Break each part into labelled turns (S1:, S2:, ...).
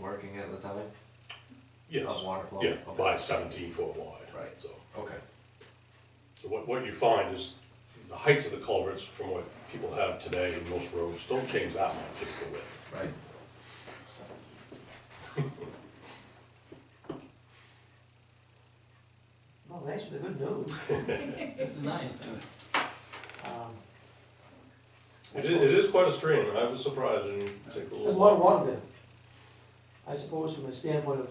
S1: working at the time?
S2: Yes,
S1: Of water flow?
S2: yeah,
S1: Okay.
S2: by seventeen foot wide.
S1: Right.
S2: So,
S1: Okay,
S2: so what, what you find is the heights of the culverts from what people have today in most roads don't change that much, it's the width.
S1: right.
S3: Well, thanks for the good news.
S4: This is nice.
S3: Um,
S2: It is, it is quite a stream, I was surprised, and you take a little.
S3: There's a lot of water there. I suppose from the standpoint of,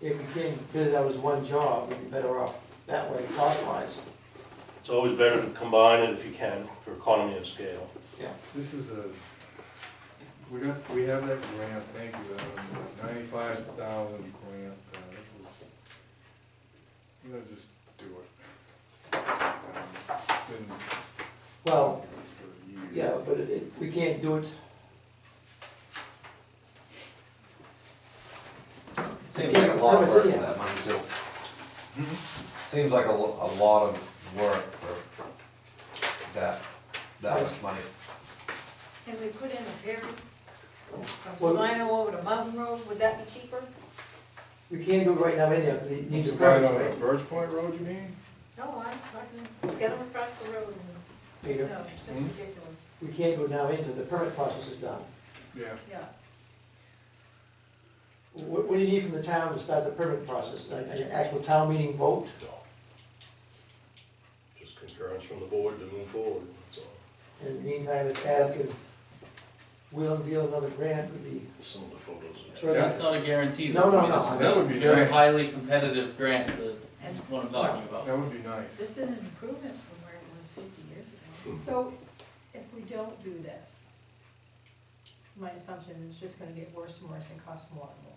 S3: if we can bid it out as one job, we'd be better off that way cost wise.
S2: It's always better to combine it if you can, for economy of scale.
S5: This is a, we got, we have that grant, thank you, ninety-five thousand grant, uh, this is, I'm gonna just do it. Um, Been.
S3: Well,
S5: for years.
S3: yeah, but it- it, we can't do it,
S1: Seems like a lot of
S3: Yeah,
S1: work for
S3: yeah.
S1: that money too.
S5: Hmm?
S1: Seems like a, lo- a lot of work for that, that much money.
S6: And we put in a ferry from
S3: Well-
S6: Salino over to Mountain Road, would that be cheaper?
S3: we can't do it right now anyhow, because it needs a
S5: Right
S3: permit,
S5: on the
S3: right?
S5: Birch Point Road, you mean?
S6: No, I, I can get them across the road and,
S3: Peter,
S6: no, it's just
S5: Hmm?
S6: ridiculous,
S3: we can't do it now until the permit process is done.
S5: Yeah.
S6: yeah.
S3: What, what do you need from the town to start the permit process, an, an actual town meeting vote?
S2: No. Just concurrence from the board to move forward, that's all.
S3: In the meantime, if Adam can wheel and deal another grant, would be
S2: Some of the photos. are-
S3: Sure.
S4: That's not a guarantee. though.
S3: No, no,
S4: I mean,
S3: no.
S4: This is
S5: That
S4: a
S5: would be
S4: very
S5: nice.
S4: highly competitive grant, the,
S6: And-
S4: what I'm talking about.
S5: That would be nice.
S6: This is an improvement from where it was fifty years ago.
S7: So if we don't do this, my assumption is it's just gonna get worse and worse and cost more and more.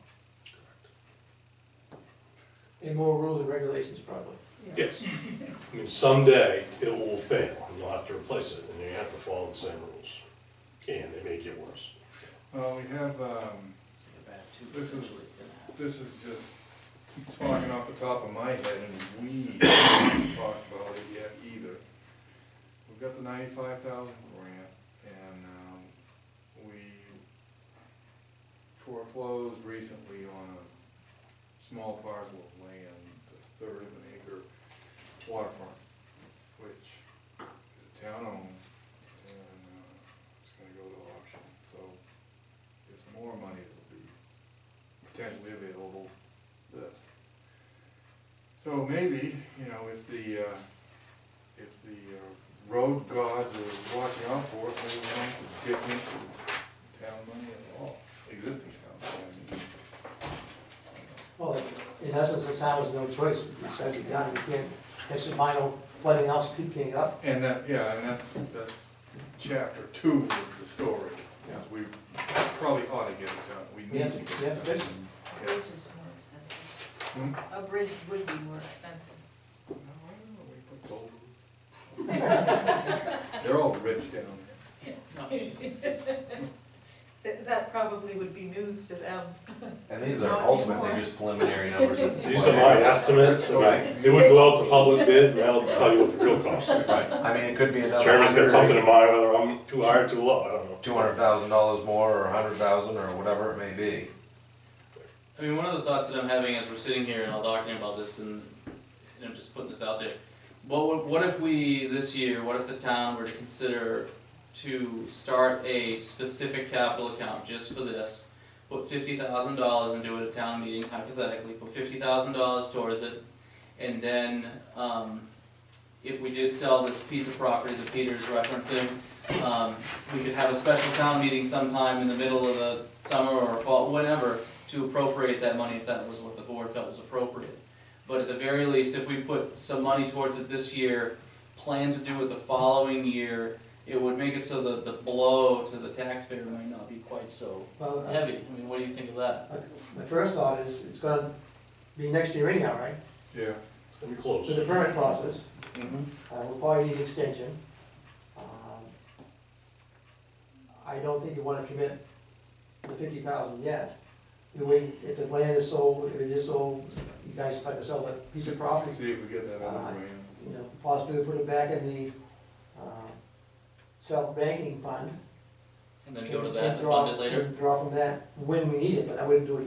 S3: And more rules and regulations probably.
S2: Yes, I mean, someday it will fail, and you'll have to replace it, and you have to follow the same rules, and it may get worse.
S5: Well, Uh, we have, um, This is- this is just talking off the top of my head, and we haven't talked about it yet either. We've got the ninety-five thousand grant, and, um, we foreclosed recently on a small parcel of land, a third of an acre waterfront, which the town owns, and, uh, it's gonna go to auction, so there's more money that'll be potentially available this. So maybe, you know, if the, uh, if the uh, road gods are watching out for it, maybe we don't have to dip into town money at all, existing town money.
S3: Well, in essence, the town has no choice, it's got to be done, you can't, have some minor flooding else keep getting up.
S5: I mean, And that, yeah, and that's, that's chapter two of the story, is we probably ought to get it done, we
S3: We have
S5: need
S3: to,
S5: to.
S3: we have to fix it.
S6: A bridge is more
S5: Hmm?
S6: expensive, a bridge would be more expensive.
S5: No, I don't know, we put gold. They're all rich down there.
S6: That, that probably would be news to them.
S1: And these are ultimately just preliminary numbers. at this
S2: These are
S1: point.
S2: my estimates, I mean, it would go out to public bid, and I'll tell you what the real cost is.
S1: Right, I mean, it could be another
S2: Chairman's got something in
S1: hundred,
S2: mind, whether I'm too high or too low, I don't know.
S1: two hundred thousand dollars more, or a hundred thousand, or whatever it may be.
S4: I mean, one of the thoughts that I'm having as we're sitting here and all talking about this and, and I'm just putting this out there. What, would- what if we, this year, what if the town were to consider to start a specific capital account just for this? Put fifty thousand dollars and do it at town meeting hypothetically, put fifty thousand dollars towards it. And then, um, if we did sell this piece of property that Peter's referencing, um, we could have a special town meeting sometime in the middle of the summer or fall, whatever, to appropriate that money if that was what the board felt was appropriate. But at the very least, if we put some money towards it this year, plan to do it the following year, it would make it so that the blow to the taxpayer might not be quite so
S3: Well, uh,
S4: heavy. I mean, what do you think of that?
S3: my first thought is, it's gonna be next year anyhow, right?
S5: Yeah.
S2: Let me
S3: For
S2: close.
S3: the permit process,
S4: Mm-hmm.
S3: uh, we'll probably need extension. Um, I don't think you wanna commit the fifty thousand yet. You wait, if the land is sold, if it is sold, you guys decide to sell that piece of property, Uh,
S5: See if we get that other grant.
S3: you know, possibly put it back in the, uh, self-banking fund.
S4: and then go to
S3: And-
S4: that
S3: and
S4: to
S3: draw-
S4: fund it later?
S3: and Draw from that when we need it, but I wouldn't do it yet.